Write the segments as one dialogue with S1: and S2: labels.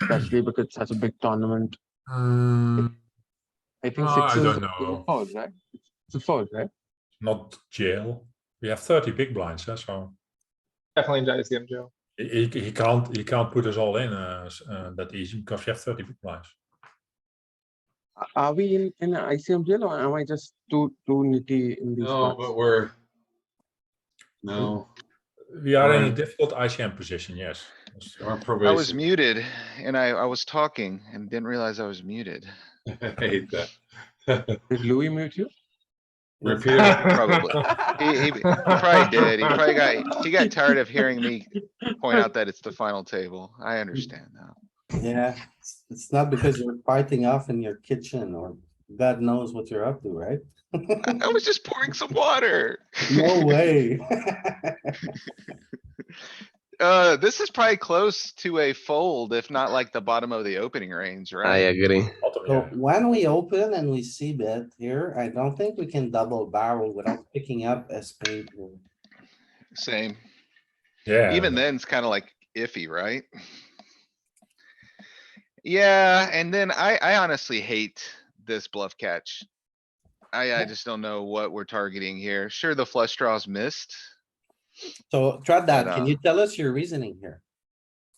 S1: especially because it's such a big tournament.
S2: Mm,
S1: I think
S2: Oh, I
S1: sixes
S2: don't
S1: is a-
S2: know.
S1: is a fold, right? It's- It's a fold, right?
S3: not jail. We have 30 big blinds, huh? so
S4: Definitely in ICM jail.
S3: he, he he can't he can't put us all in uh, s- uh, that easy because we have 30 big blinds.
S1: A- Are we in, in an ICM jail or am I just too, too nitty in these
S5: No, but
S1: parts?
S5: we're. No,
S3: We are in a
S5: Right.
S3: difficult ICM position, yes. Yes.
S4: Hmm.
S5: our
S6: I was
S5: probation.
S6: muted and I, I was talking and didn't realize I was muted.
S5: I hate that.
S1: Did Louis mute you?
S5: Repeat.
S6: Probably. He, he, he probably did. He probably got, he got tired of hearing me point out that it's the final table. I understand now.
S7: Yeah, it's- it's not because you're fighting off in your kitchen or God knows what you're up to, right?
S6: I was just pouring some water.
S7: No way.
S6: Uh, this is probably close to a fold, if not like the bottom of the opening range,
S8: I
S6: right?
S8: agree.
S3: Bottom,
S7: So
S3: yeah.
S7: when we open and we see bet here, I don't think we can double barrel without picking up a spade. here.
S6: Same.
S3: yeah.
S6: Even then, it's kinda like iffy, right? Yeah, and then I, I honestly hate this bluff catch. I, I just don't know what we're targeting here. Sure, the flush draws missed.
S7: So try that.
S6: But,
S7: Can
S6: uh,
S7: you tell us your reasoning here?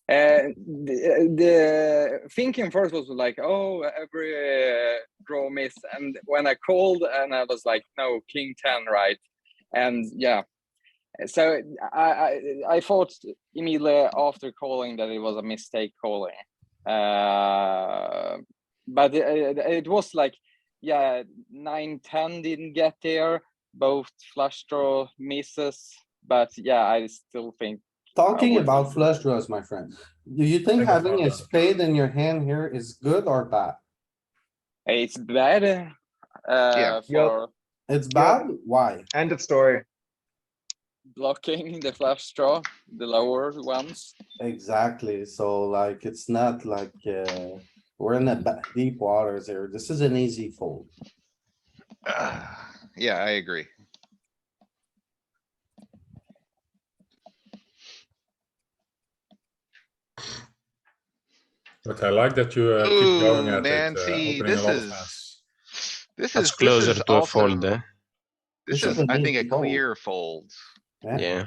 S9: Uh, the, the thinking first was like, oh, every uh, draw miss, and when I called, and I was like, no, king ten, right? And yeah, so I I, I thought immediately after calling that it was a mistake calling, uh, but it, it was like, yeah, nine ten didn't get there, both flush draw misses, but yeah, I still think
S7: Talking
S9: would-
S7: about flush draws, my friend, do you think
S3: I got
S7: having a
S3: that.
S7: spade in your hand here is good or bad?
S9: It's bad. Uh,
S4: Yep.
S9: for
S7: It's bad? Why?
S4: End of story.
S9: blocking the flush draw, the lower ones.
S7: Exactly. So like, it's not like, uh, we're in the ba- deep waters here. This is an easy fold.
S6: Ah, Yeah, I agree.
S3: But I like that you uh, keep going
S6: Ooh,
S3: at
S6: man,
S3: it. uh,
S6: see,
S3: opening a
S6: this
S3: lot of hands.
S6: is. This is.
S8: That's
S6: this
S8: closer
S6: is
S8: to a
S6: also-
S8: fold, eh?
S6: This
S7: This
S6: is,
S7: is an
S6: I think, a
S7: easy fold.
S6: clear fold.
S7: Yeah.
S8: Yeah.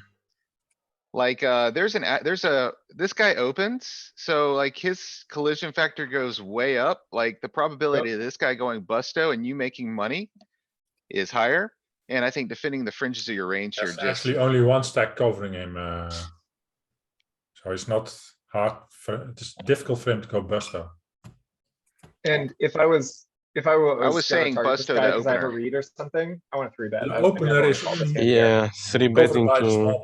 S6: Like, uh, there's an, a- there's a, this guy opens, so like his collision factor goes way up, like the probability of this guy going busto and you making money. Is higher, and I think defending the fringes of your range here
S3: There's
S6: just,
S3: actually only one stack covering him. Uh, so it's not hard for it's difficult for him to go busto.
S4: And if I was, if I wa- was.
S6: was
S4: gonna
S6: saying
S4: target this
S6: Busto
S4: guy
S6: the
S4: 'cause I have a
S6: opener.
S4: read or something, I want a three bet.
S3: The
S4: I don't think I
S3: opener
S4: wanna
S3: is
S4: call this
S3: only-
S4: game.
S8: Yeah. Three
S3: Covered
S8: betting
S3: by the
S8: to
S3: small blind.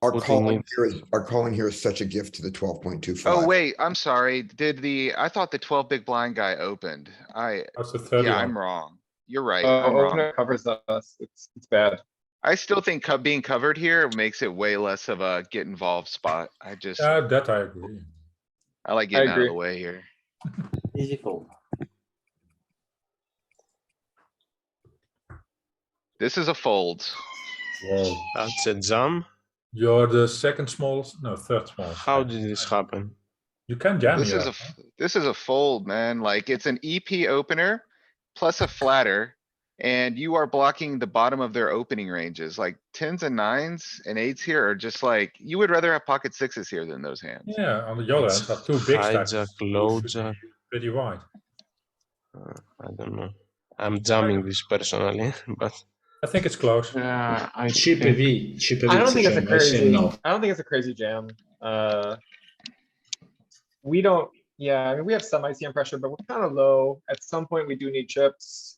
S10: Our
S8: Putting
S10: calling
S8: it-
S10: here is, our calling here is such a gift to the twelve point two five.
S6: oh wait, I'm sorry, did the, I thought the twelve big blind guy opened. I,
S3: That's the 30
S6: yeah, I'm wrong. You're right,
S4: Uh,
S6: I'm wrong.
S4: opener covers us. It's, it's bad.
S6: I still think co- being covered here makes it way less of a get involved spot. I just,
S3: Yeah, that I agree.
S6: I like getting out of
S4: agree.
S6: the way here.
S7: Easy fold.
S6: This is a fold.
S3: Wow.
S8: That's a jam.
S3: You're the second smallest, no, third smallest.
S8: How
S3: stack.
S8: did this happen?
S3: You can jam
S6: This
S3: here.
S6: is a, f- this is a fold, man. Like it's an EP opener plus a flatter. And you are blocking the bottom of their opening ranges, like tens and nines and eights here are just like, you would rather have pocket sixes here than those hands.
S3: Yeah, on the other hand,
S8: It's
S3: are two big stacks.
S8: hijack,
S3: You
S8: low
S3: should
S8: jack.
S3: be Pretty wide.
S8: Uh, I don't know. I'm jamming this personally, but
S3: I think it's close.
S2: uh, I chip V. Chip
S4: I don't think it's a crazy, I don't think it's a crazy jam. Uh. We don't, yeah, I mean, we have some ICM pressure, but we're kind of low. At some point, we do need chips.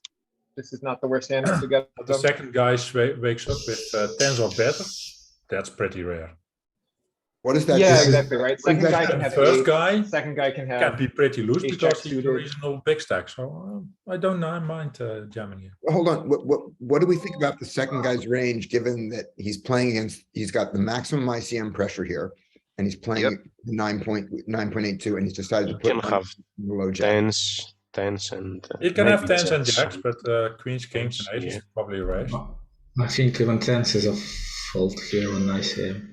S4: This is not the worst hand to get.
S3: But the
S4: them.
S3: second guy swa- wakes up with uh, tens or better. That's pretty rare.
S10: What is that?
S4: Yeah,
S10: This is-
S4: exactly, right? Second guy can
S3: And the
S4: have
S3: first
S4: eight,
S3: guy
S4: second guy can
S3: can
S4: have,
S3: be pretty loose
S4: ace
S3: because
S4: jack
S3: he's a
S4: suited.
S3: reasonable big stack. So um, I don't know, I mind uh, jamming here.
S10: Hold on, what, what, what do we think about the second guy's range, given that he's playing against, he's got the maximum ICM pressure here? And he's
S6: Yep.
S10: playing nine point, nine point eight two, and he's decided
S8: you
S10: to put.
S8: can
S10: one
S8: have
S10: Below jack.
S8: tens, tens, and. uh,
S3: You can have
S8: maybe
S3: tens and jacks, but uh, queens, kings, and aces
S8: Yeah. Mm-hmm.
S3: probably raise.
S2: I think even tens is a fault here on ICM.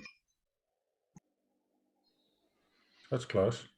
S3: That's close.